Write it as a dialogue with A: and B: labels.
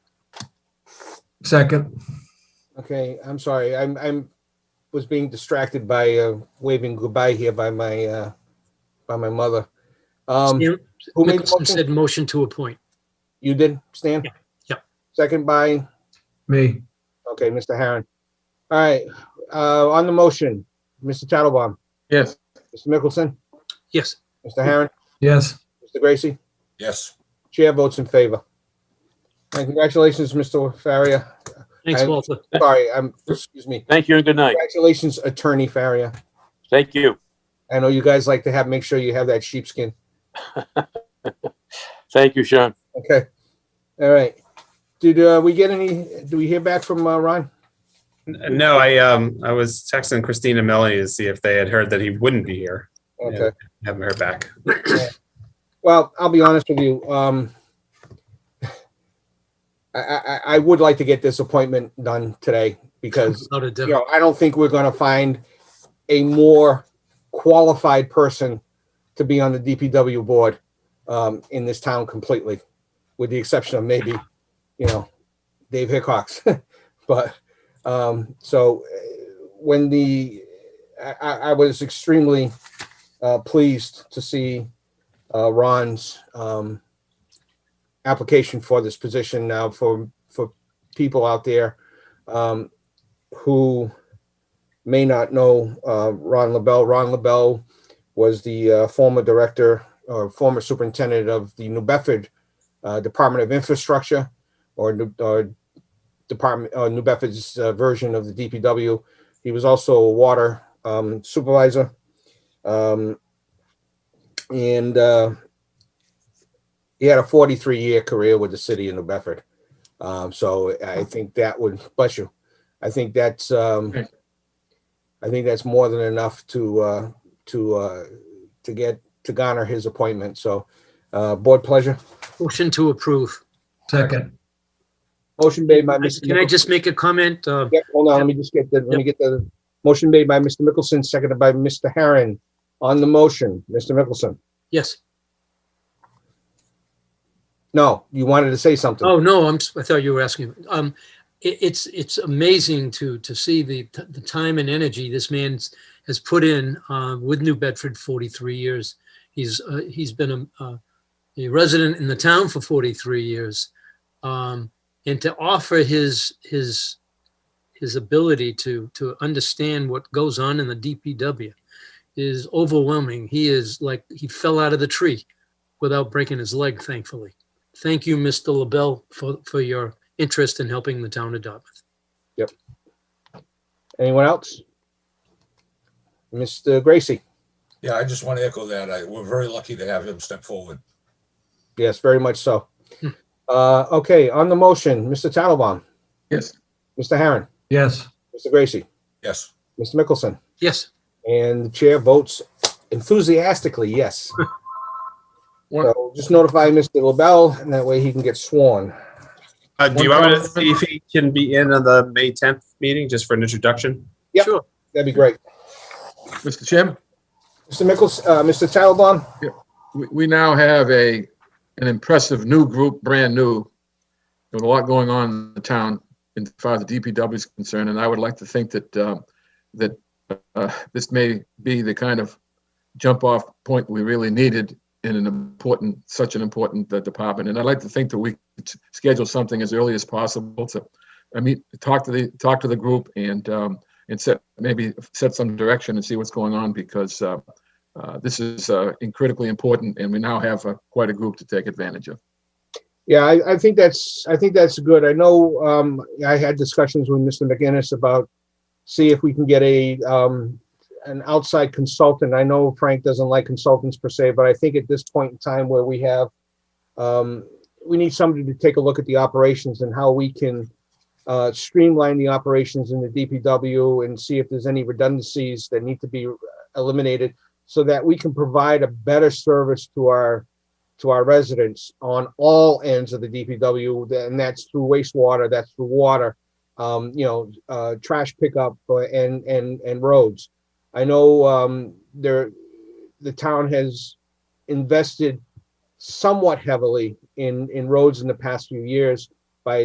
A: Second,
B: Okay, I'm sorry. I'm, I'm, was being distracted by uh, waving goodbye here by my, uh, by my mother. Um,
C: Stan-
B: who made the
C: Mickelson
B: motion?
C: said motion to appoint.
B: You did, Stan?
C: Yeah, yeah.
B: Second by,
A: me,
B: okay, Mr. Harron. All right, uh, on the motion, Mr. Tattelbaum,
D: Yes.
B: Mr. Mickelson,
C: Yes,
B: Mr. Harron,
A: yes.
B: Mr. Gracie,
E: Yes.
B: chair votes in favor. And congratulations, Mr. Faria.
C: thanks,
B: I-
C: Walter.
B: Sorry, I'm, excuse me.
D: Thank you and good night.
B: Congratulations, Attorney Faria.
D: Thank you.
B: I know you guys like to have, make sure you have that sheepskin.
D: Thank you, Sean.
B: Okay. All right. Did uh, we get any? Do we hear back from uh, Ron?
F: No, I um I was texting Christine and Melanie to see if they had heard that he wouldn't be here.
B: Okay.
F: Yeah. Haven't heard back.
B: Well, I'll be honest with you. Um, I, I, I would like to get this appointment done today because
C: Without a
B: you
C: doubt.
B: know I don't think we're going to find a more qualified person to be on the DPW board um, in this town completely, with the exception of maybe you know Dave Hickox. but um, so uh, when the I, I I was extremely uh, pleased to see uh, Ron's um, application for this position now for for people out there um, who may not know uh, Ron LaBelle. Ron LaBelle was the uh, former director or former superintendent of the New Bedford uh, Department of Infrastructure or, New- or Department uh, New Bedford's uh, version of the DPW. He was also a water um, supervisor. Um, and uh, he had a 43 year career with the city of New Bedford. Um, so I think that would bless you. I think that's um,
D: Thank
B: I think that's more than enough to uh, to uh, to get to garner his appointment. So uh, board pleasure.
C: Motion to approve.
A: Second,
B: Motion made by Mr.
C: Can I
B: Nichols.
C: just make a comment? Uh,
B: Yep, hold on, let me just get the, let me get the motion made by Mr. Mickelson, seconded by Mr. Herron. On the motion, Mr. Mickelson.
C: Yes.
B: No, you wanted to say something.
C: Oh, no, I'm, s- I thought you were asking. Um, it, it's, it's amazing to, to see the, t- the time and energy this man has put in, uh, with New Bedford 43 years. He's, uh, he's been a, uh, a resident in the town for 43 years. Um, and to offer his, his, his ability to, to understand what goes on in the DPW is overwhelming. He is like, he fell out of the tree without breaking his leg, thankfully thank you, Mr. LaBelle, for, for your interest in helping the town of Dartmouth.
B: Anyone else? Mr. Gracie,
E: Yeah, I just want to echo that. I, we're very lucky to have him step forward.
B: yes, very much so.
C: Hmm.
B: Uh, okay, on the motion, Mr. Tattelbaum,
D: Yes.
B: Mr. Herron,
A: yes.
B: Mr. Gracie,
E: Yes.
B: Mr. Mickelson,
C: Yes,
B: and the chair votes enthusiastically, yes. So just notify Mr. LaBelle and that way he can get sworn.
F: Uh, do you want me to see if he can be in on the May 10th meeting just for an introduction?
B: Yep.
C: sure.
B: That'd be great.
D: Mr. Chairman,
B: Mr. Mickelson, uh, Mr. Tattelbaum?
D: we, we now have a, an impressive new group, brand new. There's a lot going on in the town in far as the DPW is concerned, and I would like to think that, um, that, uh, this may be the kind of jump off point we really needed in an important, such an important uh, department. And I'd like to think that we could s- schedule something as early as possible to, I mean, talk to the, talk to the group and, um, and set, maybe set some direction and see what's going on because, uh, uh, this is uh, incredibly important, and we now have uh, quite a group to take advantage of.
B: Yeah, I, I think that's, I think that's good. I know, um, I had discussions with Mr. McGinnis about see if we can get a, um, an outside consultant. I know Frank doesn't like consultants per se, but I think at this point in time where we have, um, we need somebody to take a look at the operations and how we can, uh, streamline the operations in the DPW and see if there's any redundancies that need to be eliminated so that we can provide a better service to our, to our residents on all ends of the DPW, and that's through wastewater, that's through water, um, you know, uh, trash pickup uh, and, and, and roads. I know, um, there, the town has invested somewhat heavily in, in roads in the past few years.